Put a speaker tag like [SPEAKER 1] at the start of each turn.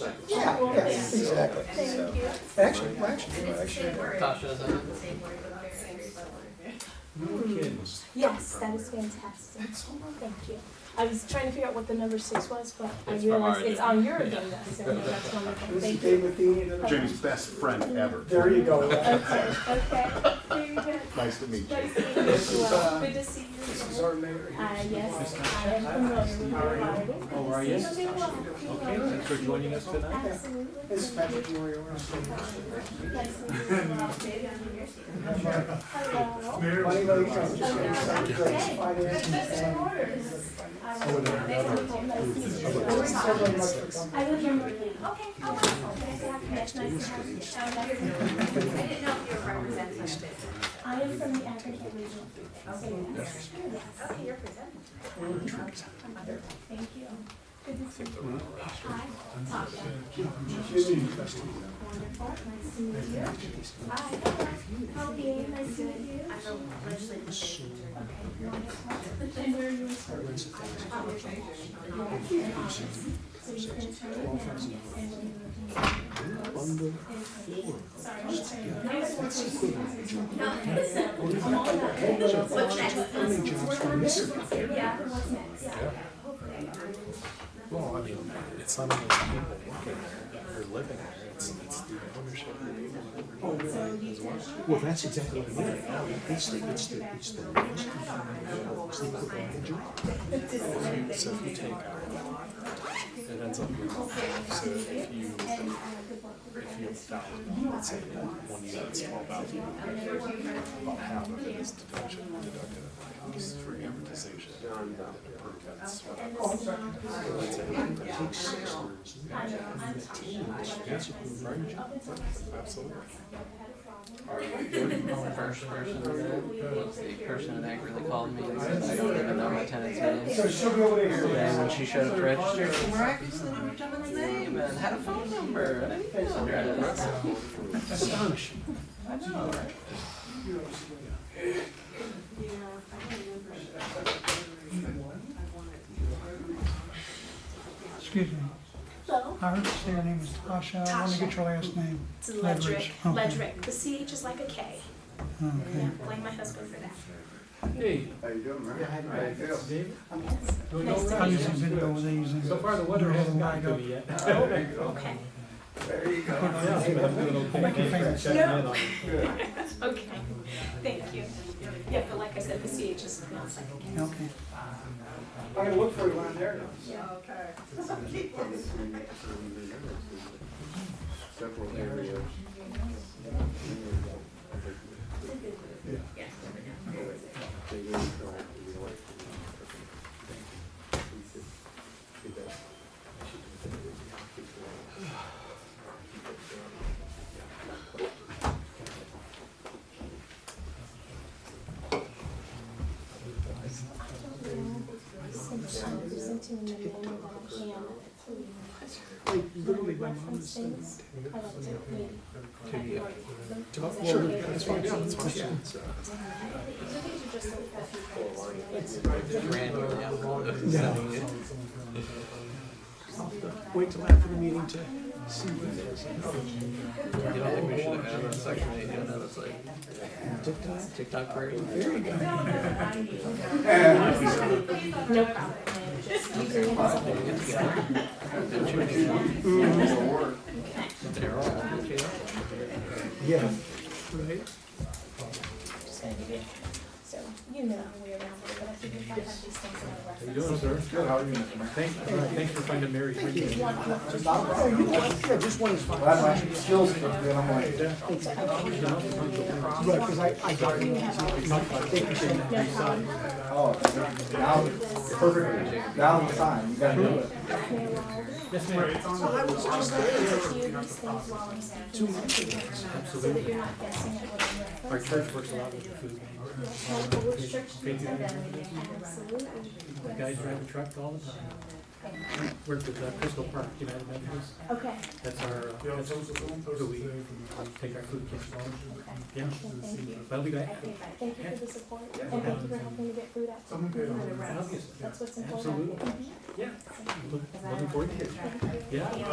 [SPEAKER 1] Yeah, yes, exactly.
[SPEAKER 2] Thank you.
[SPEAKER 1] Actually, well, actually,
[SPEAKER 3] And
[SPEAKER 1] well,
[SPEAKER 3] it's the
[SPEAKER 1] actually.
[SPEAKER 3] same word.
[SPEAKER 4] Tasha, is that it?
[SPEAKER 3] Same word, but very, very similar.
[SPEAKER 2] Yes, that is fantastic. Thank you. I was trying to figure out what the number six was, but I
[SPEAKER 4] It's from our
[SPEAKER 2] realized it's
[SPEAKER 4] agenda.
[SPEAKER 2] on your agenda, so that's wonderful.
[SPEAKER 5] This is
[SPEAKER 2] Thank you.
[SPEAKER 5] David Dean.
[SPEAKER 6] Jimmy's best friend ever.
[SPEAKER 5] There you go.
[SPEAKER 2] Okay, okay. Very good.
[SPEAKER 6] Nice to meet you.
[SPEAKER 2] Nice to meet you as well. Good to see you.
[SPEAKER 5] This
[SPEAKER 2] as
[SPEAKER 5] is
[SPEAKER 2] well.
[SPEAKER 5] our mayor. here.
[SPEAKER 2] Uh, yes, I am familiar with the
[SPEAKER 7] How are you?
[SPEAKER 2] Good to see you. Okay,
[SPEAKER 7] Thanks for joining us tonight.
[SPEAKER 2] Absolutely.
[SPEAKER 5] This is
[SPEAKER 2] Thank you.
[SPEAKER 5] Patrick Moriarty.
[SPEAKER 2] Nice to meet you as well.
[SPEAKER 3] Maybe I'm in your seat.
[SPEAKER 2] Hello.
[SPEAKER 5] Money Lane Trust, just gonna sign the
[SPEAKER 2] Okay.
[SPEAKER 5] finance and-
[SPEAKER 2] oh,
[SPEAKER 5] Thank you very much for coming.
[SPEAKER 2] I live in Berlin. Okay, oh, wow. Nice to have you. Nice to have you. Um,
[SPEAKER 3] I
[SPEAKER 2] that's-
[SPEAKER 3] didn't know if you were representing a business.
[SPEAKER 2] I am from the African region. So, yes. Yes.
[SPEAKER 3] Okay, you're presenting.
[SPEAKER 2] Thank you. Good to see you. Hi. Tasha. Wonderful. Nice to meet you. Hi. Hello. Nice to meet you.
[SPEAKER 3] I'm a legislative.
[SPEAKER 2] Okay, wonderful. And where are you from? So you can turn it now and when you're looking at it, it's- Sorry, I'm sorry. I was working. No, listen, I'm all about it.
[SPEAKER 3] What's next?
[SPEAKER 2] Work on this. Yeah, what's next? Yeah.
[SPEAKER 7] Well, I mean, it's not only the people working there or living there, it's, it's the ownership. Well, that's exactly what I mean. Oh, It's the, it's the, it's the. it's the equipment manager. So if you take our, it ends up being, so if you, if you have thousand, let's say one unit's twelve thousand. About half of it is deduction, deducted accounts for amortization. and then it permits whatever. Let's say it takes six years. Fifteen years. Absolutely.
[SPEAKER 4] The first person that, what's the person that really called me and said, I don't even know my tenant's
[SPEAKER 5] So
[SPEAKER 4] name.
[SPEAKER 5] she'll be over
[SPEAKER 4] And when
[SPEAKER 5] there.
[SPEAKER 4] she showed up to register, she miraculously knew her gentleman's name and had a phone number. I didn't know that.
[SPEAKER 7] Astonishing.
[SPEAKER 4] I know, right?
[SPEAKER 8] Excuse me,
[SPEAKER 2] Hello.
[SPEAKER 8] I understand your name is Tasha, I want to get your last name.
[SPEAKER 2] It's Ledric.
[SPEAKER 8] Okay.
[SPEAKER 2] Ledric. The CH is like a K.
[SPEAKER 8] Okay.
[SPEAKER 2] Yeah, blame my husband for that.
[SPEAKER 7] Hey,
[SPEAKER 6] How you doing, man?
[SPEAKER 7] David.
[SPEAKER 2] Yes.
[SPEAKER 7] Doing
[SPEAKER 2] Nice
[SPEAKER 7] all
[SPEAKER 2] to
[SPEAKER 8] I
[SPEAKER 7] right?
[SPEAKER 2] meet
[SPEAKER 8] just
[SPEAKER 2] you.
[SPEAKER 8] have video with these and.
[SPEAKER 7] So far, the weather hasn't gotten to me yet.
[SPEAKER 2] Okay.
[SPEAKER 7] Yeah, but I'm doing okay.
[SPEAKER 8] Make your fingers.
[SPEAKER 7] Checking in on you.
[SPEAKER 2] Okay. Thank you. Yeah, but like I said, the CH is not like a K.
[SPEAKER 8] Okay.
[SPEAKER 5] I'm gonna look for you around there.
[SPEAKER 6] Several areas.
[SPEAKER 2] Since I'm presenting the name that I am, please.
[SPEAKER 5] Like, literally, my mom
[SPEAKER 2] Reference
[SPEAKER 5] is saying,
[SPEAKER 2] things. I like to read.
[SPEAKER 7] Take it.
[SPEAKER 2] Well,
[SPEAKER 7] Well, that's fine, yeah, that's fine.
[SPEAKER 4] Random,
[SPEAKER 7] Yeah.
[SPEAKER 4] yeah.
[SPEAKER 7] Wait till after the meeting to see what it is.
[SPEAKER 4] You don't think we should have had a section eight, you know, that's like
[SPEAKER 7] TikTok?
[SPEAKER 4] TikTok party?
[SPEAKER 7] There you go.
[SPEAKER 2] No problem. I'm just using it as a-
[SPEAKER 4] They're all on the jail.
[SPEAKER 7] Yeah. Right?
[SPEAKER 2] just gonna give you. So, you know how we are around here, but I think if I have these things in my reference.
[SPEAKER 7] sir? Good, how are you? Thank, thanks for finding Mary. Thank you.
[SPEAKER 5] Oh, Yeah, just one is fine. Right, because I, I got it.
[SPEAKER 9] Oh, now, perfect, now it's time, you gotta do it.
[SPEAKER 2] So I was just gonna give you these things while I'm speaking. Two So that you're not guessing at what I'm
[SPEAKER 7] Our
[SPEAKER 2] referencing.
[SPEAKER 7] church works a lot with the food. uh,
[SPEAKER 2] Yes, well, which church
[SPEAKER 7] Faith
[SPEAKER 2] you attend.
[SPEAKER 7] Evangelical.
[SPEAKER 2] Absolutely.
[SPEAKER 7] The guys drive the truck all the time. Worked with uh, Crystal Park United Methodist.
[SPEAKER 2] Okay,
[SPEAKER 7] That's our, uh, that's who we take our food kits from.
[SPEAKER 2] okay.
[SPEAKER 7] Yeah,
[SPEAKER 2] Well, thank you.
[SPEAKER 7] that'll be great.
[SPEAKER 2] Thank you for the support and thank you for helping to get food out to people.
[SPEAKER 7] Obviously.
[SPEAKER 2] That's what's important.
[SPEAKER 7] Absolutely.
[SPEAKER 2] Mhm.
[SPEAKER 7] Yeah. Look- Looking forward to it.
[SPEAKER 2] Thank you.
[SPEAKER 7] Yeah.